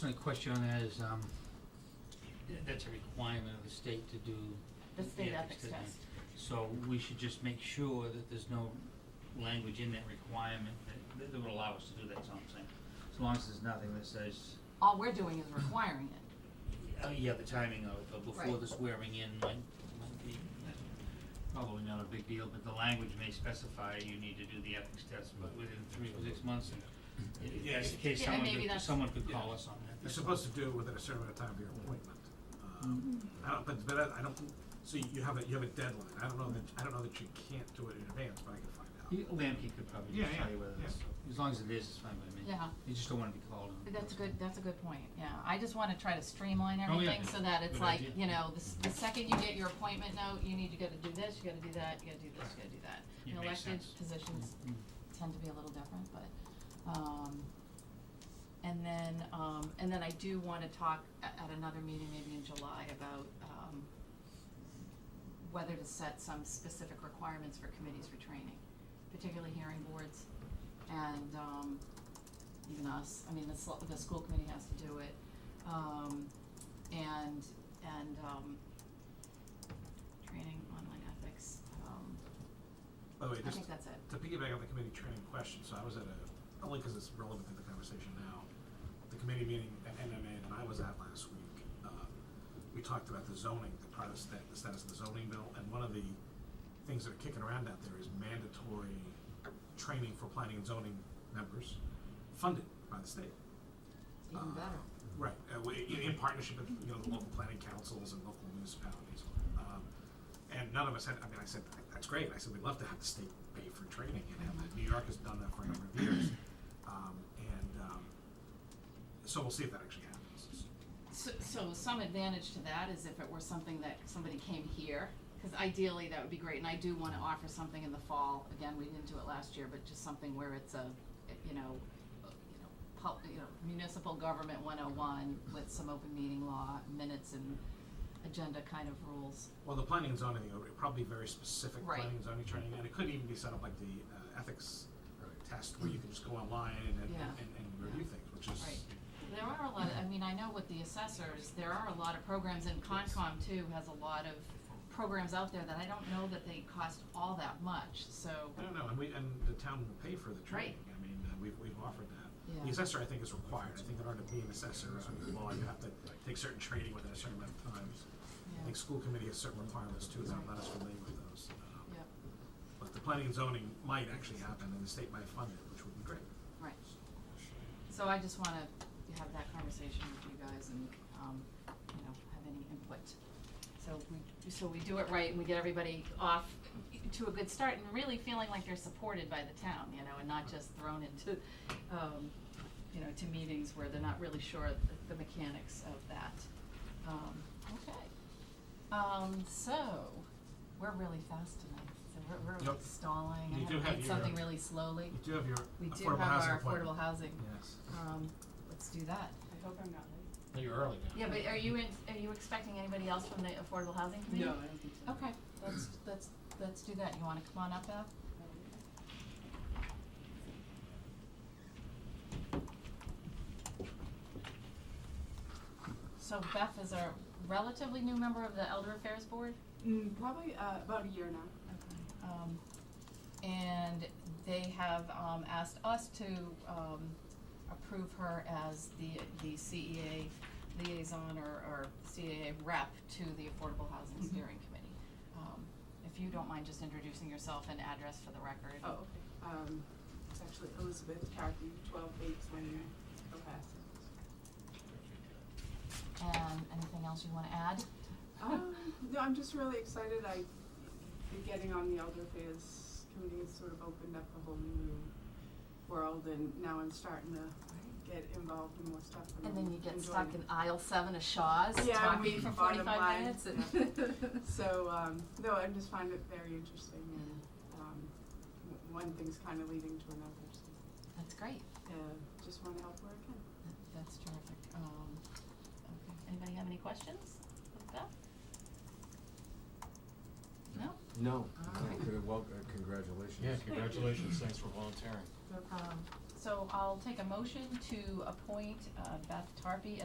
My question on that is, um, that's a requirement of the state to do, the state Yeah, ethics it's- test. so we should just make sure that there's no language in that requirement that- that, that would allow us to do that, that's all I'm saying. As long as there's nothing that says, All we're doing is requiring it. uh, yeah, the timing of, of before Right. the swearing in might, might be, uh, probably not a big deal, but the language may specify you need to do the ethics test, but within three or six months, and i- i- Yes. in case Yeah, and someone maybe could, that's- someone could call us on that. You're that's all. supposed to do it within a certain amount of time of your appointment. Um, I don't, but, but I- I don't, so you have a, you have a deadline, I don't know that, I don't know that you can't do it in advance, but I can find out. You- Lamke could probably Yeah, just tell yeah, you whether yeah. it's, as long as it is, it's fine by me. Yeah. You just don't wanna be called on. That's a good, that's a good point, yeah. I just wanna try to streamline Oh, yeah. everything so that it's Good like, idea. you know, the, s- the second you get your appointment note, you need to go to do this, you gotta do that, you gotta do this, you gotta do that. Yeah, And makes Elected sense. positions Mm. tend to be a little different, but, um, and then, um, and then I do wanna talk a- at another meeting, maybe in July, about, um, whether to set some specific requirements for committees for training, particularly hearing boards and, um, even us, I mean, the sl- the school committee has to do it. Um, and, and, um, training online ethics, um, By the way, I just think that's it. to piggyback on the committee training question, so I was at a, only because it's relevant to the conversation now, the committee meeting at MMA that I was at last week, um, we talked about the zoning, the part of sta- the status of the zoning bill, and one of the things that are kicking around out there is mandatory training for planning and zoning members, funded by the state. Even Uh, better. Right, uh, we, in, in partnership with, you know, the local planning councils and local municipalities. Um, and none of us had, I mean, I said, that's great, I said, we'd love to have the state pay for training and have that, New York has done that for a number of years. Um, and, um, so we'll see if that actually happens. So, so some advantage to that is if it were something that somebody came here, cause ideally that would be great, and I do wanna offer something in the fall, again, we didn't do it last year, but just something where it's a, you know, uh, you know, pub, you know, municipal government one oh one with some open meeting law, minutes and agenda kind of rules. Well, the planning and zoning, it would probably be very specific Right. planning and zoning training, and it could even be set up like the uh, ethics test where you can just go online and, and, Yeah. and, and review things, which is, Right. There are a lot of, I mean, I know with the assessors, there are a lot of programs, and Concom too has a lot of programs out there that I don't know that they cost all that much, so, I don't know, and we, and the town will pay for the training, I mean, uh, we've, we've offered that. yeah. The assessor, I think, is required, I think in order to be an assessor, under the law, you have to take certain training within a certain amount of time. I yeah. think school committee has certain requirements too, that I'm not as familiar with those. Um, Yep. But the planning and zoning might actually happen, and the state might fund it, which would be great. Right. So I just wanna have that conversation with you guys and, um, you know, have any input. So we, so we do it right and we get everybody off to a good start and really feeling like they're supported by the town, you know, and not just thrown into, um, you know, to meetings where they're not really sure the- the mechanics of that. Um, okay. Um, so, we're really fast tonight, so we're, we're like Yep. stalling, You I do have to have hit your- something really slowly. You do have your We do affordable have housing our affordable appointment. housing, Yes. um, let's do that. I hope I'm not late. You're early now. Yeah, but are you in, are you expecting anybody else from the affordable housing committee? I don't think so. Okay, let's, let's, let's do that, you wanna come on up, Beth? So Beth is a relatively new member of the Elder Affairs Board? Mm, probably uh, about a year now. Okay, um, and they have, um, asked us to, um, approve her as the, the CEA liaison or, or CEA rep to the Affordable Housing Mhm. Steering Committee. Um, if you don't mind just introducing yourself and address for the record. Oh, okay. Um, it's actually Elizabeth Carthy, twelve eight twenty nine, Cohasset. And anything else you wanna add? Um, no, I'm just really excited. I getting on the elder affairs committee has sort of opened up a whole new world, and now I'm starting to get involved in more stuff. And then you I'm get stuck in enjoying aisle seven of Shaw's, Yeah, talking we for bottom forty-five line. minutes and. it. So um, no, I just find it very interesting, and um, w- one thing's kind of leading to another. So That's great. uh, just want to help where I can. That- That's terrific. Um, okay. Anybody have any questions of Beth? No? No, All right. well, uh, congratulations. Yeah, congratulations, thanks for volunteering. Um, So I'll take a motion to appoint uh, Beth Tarpey